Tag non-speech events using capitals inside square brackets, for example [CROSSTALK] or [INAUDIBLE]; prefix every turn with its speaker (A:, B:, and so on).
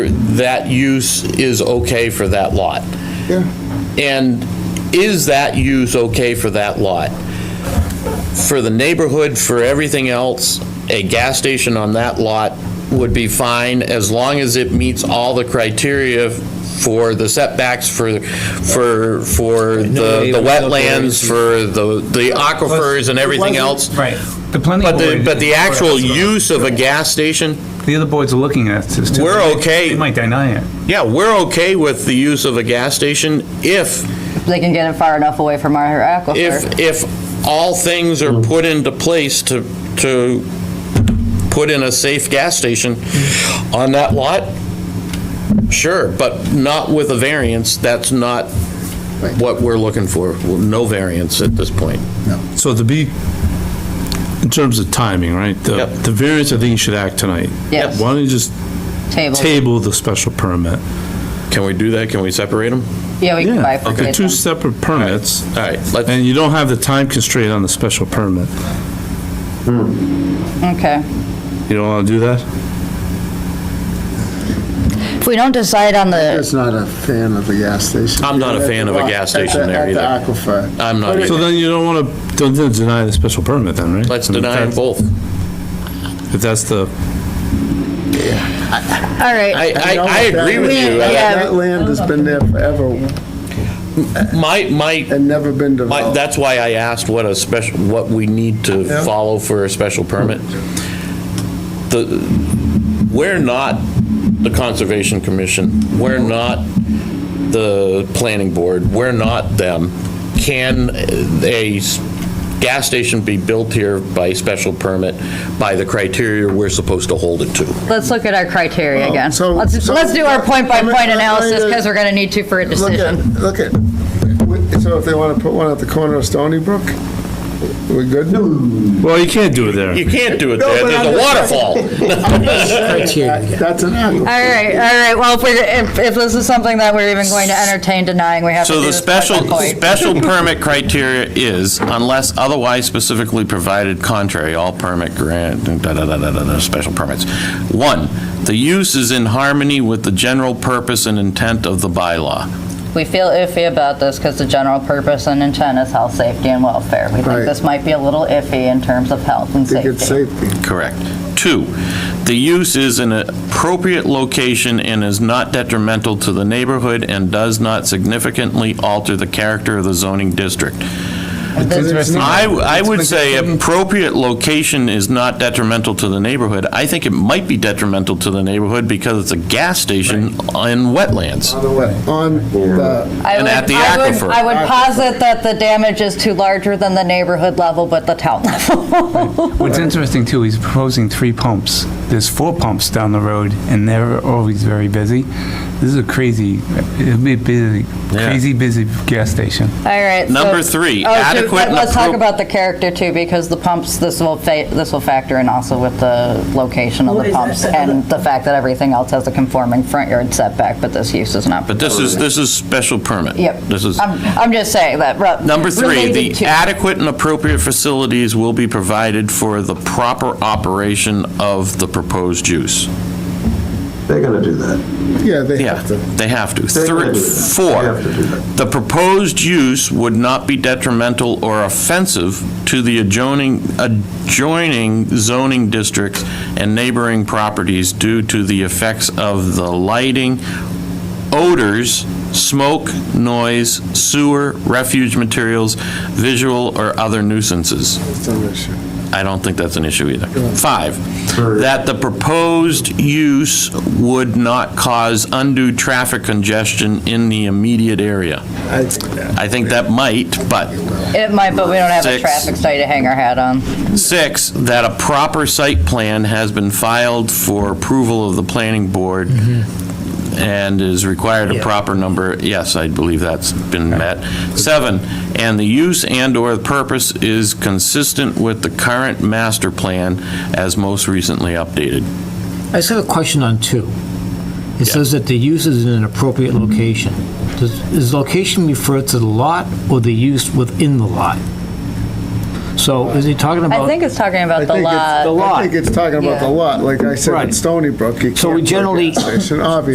A: that use is okay for that lot?
B: Yeah,
A: And is that use okay for that lot? For the neighborhood, for everything else, a gas station on that lot would be fine as long as it meets all the criteria for the setbacks, for, for, for the the wetlands, for the, the aquifers and everything else.
C: Right. The planning
A: But the,
C: board-
A: but the actual use of a gas station,
C: The other boards are looking at this too.
A: We're
C: They-
A: okay.
C: They might deny it.
A: yeah, we're okay with the use of a gas station if
D: They can get it far enough away from our aquifer.
A: if, if all things are put into place to, to put in a safe gas station on that lot, sure, but not with a variance, that's not what we're looking for, no variance at this point.
E: So to be, in terms of timing, right? the-
A: Yep.
E: The variance, I think you should act tonight.
D: Yes.
E: Why don't you just
D: Table.
E: table the special permit?
A: Can we do that, can we separate them?
D: Yeah, we can
E: Yeah, they're
D: bifurcate
E: two
D: them.
E: separate permits,
A: All right, let's,
E: and you don't have the time constraint on the special permit.
D: Okay.
E: You don't want to do that?
D: If we don't decide on the,
B: just not a fan of the gas station.
A: I'm not a fan of a gas
B: At the-
A: station there
B: At the
A: either.
B: aquifer.
A: I'm not,
E: So
A: either.
E: then you don't want to, don't then deny the special permit then, right?
A: let's
E: I mean, if
A: deny them
E: that-
A: both.
E: If that's the,
D: all right,
A: I, I, I agree with you.
D: Yeah.
B: That land has been there forever
A: My, my
B: and never been
A: My-
B: developed.
A: That's why I asked what a special, what we need to
B: Yeah.
A: follow for a special permit. The, we're not the Conservation Commission, we're not the Planning Board, we're not them. Can a s- gas station be built here by special permit by the criteria we're supposed to hold it to?
D: let's look at our criteria
B: Well,
D: again.
B: Oh, so-
D: Let's,
B: so-
D: let's do our
B: Let me- let
D: point-by-point
B: me-
D: analysis, because we're gonna need to for a
B: Look at,
D: decision.
B: look at, we- so if they want to put one at the corner of Stony Brook, we good?
E: well, you can't do it there.
A: You can't do it
B: No,
A: there,
B: but
A: there's a
B: I'm-
A: waterfall.
B: That's an aquifer.
D: All right, all right, well, if we're, if, if this is something that we're even going to entertain denying, we have to do
A: So the
D: this
A: special,
D: point-by-point.
A: special permit criteria is unless otherwise specifically provided contrary, all permit grant, da-da-da-da-da, special permits. One, the use is in harmony with the general purpose and intent of the bylaw.
D: We feel iffy about this, because the general purpose and intent is health, safety, and welfare. We
B: Right.
D: think this might be a little iffy in terms of health and
B: Think it's
D: safety.
B: safety.
A: Correct. Two, the use is in an appropriate location and is not detrimental to the neighborhood and does not significantly alter the character of the zoning district. I, I would say appropriate location is not detrimental to the neighborhood. I think it might be detrimental to the neighborhood because it's a gas station in wetlands.
B: On the wet- on the,
D: I
A: And
D: would-
A: at the
D: I would-
A: aquifer.
D: I would posit that the damage is too larger than the neighborhood level, but the
A: [LAUGHS]
D: town level.
C: What's interesting too, he's proposing three pumps. There's four pumps down the road and they're always very busy. This is a crazy, it'd be a busy,
A: Yeah.
C: crazy busy gas station.
D: All right. so-
A: Number three,
D: Oh, so
A: adequate and
D: Let's talk
A: appro-
D: about the character too, because the pumps, this will, fa- this will factor in also with the location of
F: Well,
D: the
F: is that
D: pumps
F: the-
D: and the fact that everything else has a conforming front yard setback, but this use is not.
A: But this is, this is special permit.
D: Yep.
A: This is,
D: I'm, I'm just saying that. re-
A: number three,
D: related
A: the
D: to-
A: adequate and appropriate facilities will be provided for the proper operation of the proposed use.
G: They're gonna do that.
B: yeah, they
A: Yeah,
B: have to.
A: they have to.
G: They're
A: Three-
G: gonna do that.
A: Four,
G: They have to do that.
A: the proposed use would not be detrimental or offensive to the adjoining, adjoining zoning districts and neighboring properties due to the effects of the lighting, odors, smoke, noise, sewer, refuge materials, visual or other nuisances.
B: It's an issue.
A: I don't think that's an issue either. Five, that the proposed use would not cause undue traffic congestion in the immediate area.
B: I think that.
A: I think that might, but
D: It might, but we don't have a
A: Six.
D: traffic study to hang our hat on.
A: six, that a proper site plan has been filed for approval of the planning board and is required a proper number, yes, I believe that's been met. Seven, and the use and/or purpose is consistent with the current master plan as most recently updated.
H: I just have a question on two. It says that the use is in an appropriate location. Does does location refer to the lot or the use within the lot? So is he talking
D: I
H: about?
D: think it's talking
B: I
D: about the
B: think it's-
D: lot.
H: The
B: I
H: lot.
B: think it's talking about the
D: Yeah.
B: lot, like I said,
H: Right.
B: at Stony Brook, you can't
H: So we
B: put a
H: generally-
B: gas station, obviously.